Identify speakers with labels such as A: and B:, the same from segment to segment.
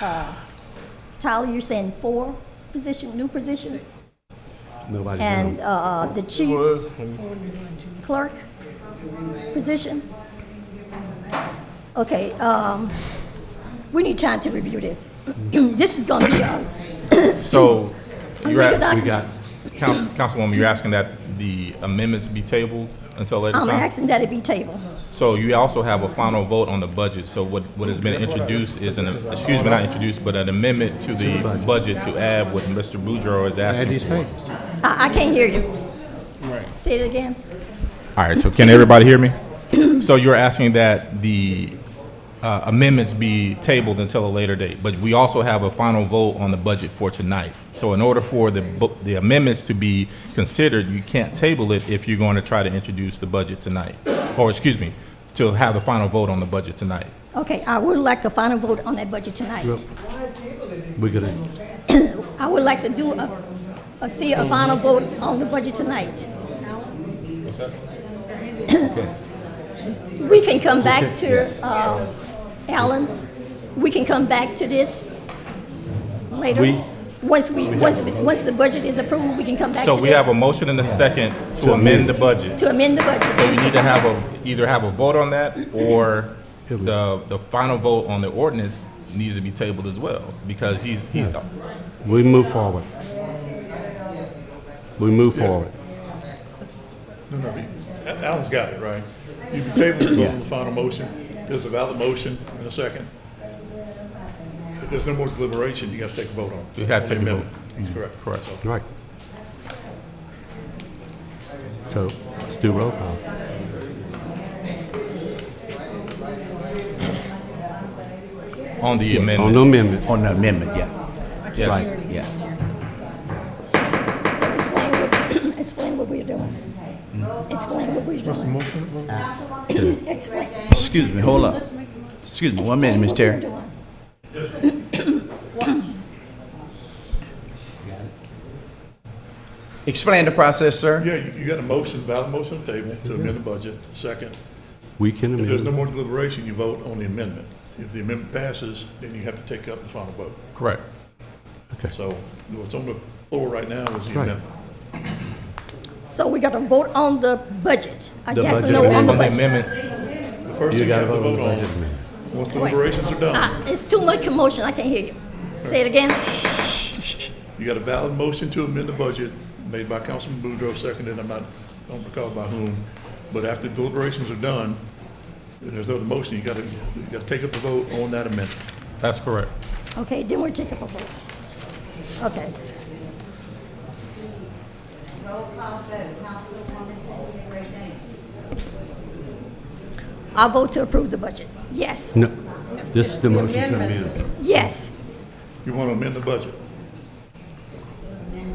A: uh, Tyler, you're saying four position, new position?
B: Nobody's
A: And
B: in.
A: uh, the chief
C: Was,
A: clerk position? Okay, um, we need time to review this. This is gonna be uh, a
D: So, you're
A: Look at that.
B: We
D: at,
B: got,
D: Council, Councilwoman, you're asking that the amendments be tabled until later
A: I'm
D: time?
A: asking that it be tabled.
D: So you also have a final vote on the budget, so what, what has been introduced is an, excuse me, not introduced, but an amendment to the budget to add what Mr. Boudreaux is
B: add
D: asking
B: these
D: for.
B: papers.
A: I, I can't hear you. Say it again.
D: All right, so can everybody hear me? So you're asking that the uh, amendments be tabled until a later date, but we also have a final vote on the budget for tonight. So in order for the bu- the amendments to be considered, you can't table it if you're going to try to introduce the budget tonight, or excuse me, to have the final vote on the budget tonight.
A: Okay, I would like a final vote on that budget tonight.
B: We're gonna,
A: I would like to do a, a, see a final vote on the budget tonight. We can come back to, uh, Alan, we can come back to this later.
B: We-
A: Once we, once, we- once the budget is approved, we can come back to
D: So
A: this.
D: we have a motion and a second to amend the budget.
A: To amend the budget.
D: So you need to have a, either have a vote on that, or the, the final vote on the ordinance needs to be tabled as well, because he's, he's,
B: we move forward. We move forward.
E: Alan's got it, right? You can table the vote on the final motion. There's a valid motion and a second. If there's no more deliberation, you got to take a vote on it.
D: You gotta take a vote.
E: Amendment. That's correct.
D: Correct.
B: Right. So, let's do roll call.
D: on the
B: On the
D: amendment,
B: Oh, amendment,
F: On the amendment, yeah,
D: yes.
F: yeah.
A: So explain what, explain what we're doing. Explain what we're doing. Explain.
F: Excuse me, hold up. Excuse me, one minute, Ms. Terry.
A: Explain what we're doing.
F: Explain the process, sir.
E: Yeah, you- you got a motion, valid motion on the table to amend the budget, second.
B: we can
E: If there's no
B: amend,
E: more deliberation, you vote on the amendment. If the amendment passes, then you have to take up the final vote.
D: Correct.
E: So what's on the floor right now is the
B: Right.
E: amendment.
A: So we gotta vote on the budget, a
B: The
A: yes or
B: budget
A: no on
D: On
A: the
D: the
A: budget.
D: amendments,
E: The first
B: you
E: thing you
B: gotta
E: have to
B: vote on
E: vote
B: the budget
E: on,
B: amendment.
E: once deliberations are done,
A: Ah, It's too much commotion, I can't hear you. Say it again.
E: You got a valid motion to amend the budget made by Councilman Boudreaux, seconded, I'm not, don't recall by whom. But after deliberations are done, and there's no other motion, you gotta, you gotta take up the vote on that amendment.
D: that's correct.
A: Okay, then we'll take up a vote. Okay. I vote to approve the budget. Yes,
B: no, this is the motion to amend.
A: yes.
E: You wanna amend the budget?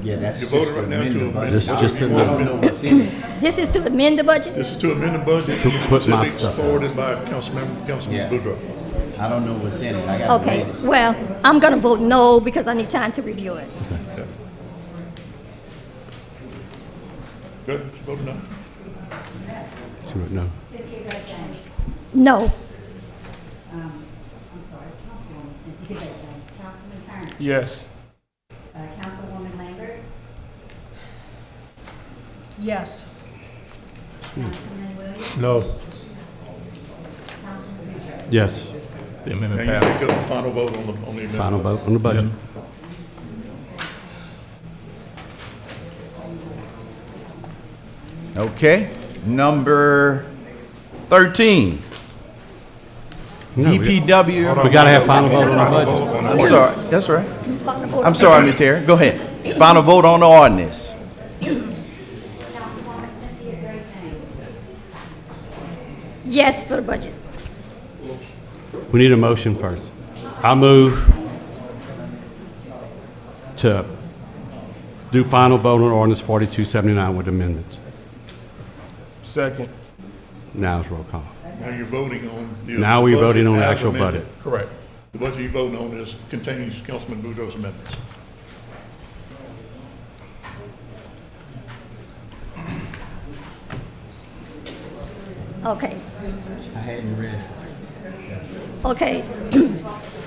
F: Yeah, that's
E: You voted right now to amend.
B: This
E: the
B: is just
E: budget.
B: an
F: I don't know what's in it.
A: This is to amend the budget?
E: This is to amend the budget,
B: To put my
E: specifics
B: stuff out.
E: forwarded by Councilman, Councilman
F: Yeah.
E: Boudreaux.
F: I don't know what's in it. I got to
A: Okay,
F: read it.
A: well, I'm gonna vote no because I need time to review it.
E: Good, you voted no?
B: She wrote No,
A: No,
G: Um, I'm sorry, Councilwoman Cynthia James, Councilman Turner,
C: yes.
G: uh, Councilwoman Lambert,
H: Yes.
G: Councilman Williams,
C: No.
G: Councilman Butcher.
B: yes,
D: The
E: Now
D: amendment
E: you
D: passed.
E: take up the final vote on the, on the amendment.
B: final vote on the budget.
F: Okay, number 13.
B: No, we-
F: DPW,
B: We gotta have final vote on the budget.
F: I'm sorry, that's right.
A: final vote.
F: I'm sorry, Ms. Terry, go ahead. Final vote on the ordinance.
G: Councilwoman Cynthia Gray James,
A: Yes for the budget.
B: We need a motion first. I move to do final vote on ordinance 4279 with amendments.
C: Second,
B: Now it's roll call.
E: Now you're voting on the.
B: Now we're
E: budget
B: voting on the
E: as
B: actual
E: amended.
B: budget.
D: Correct.
E: The budget you're voting on is, contains Councilman Boudreaux's amendments.
A: Okay,
F: I hadn't read.
A: okay.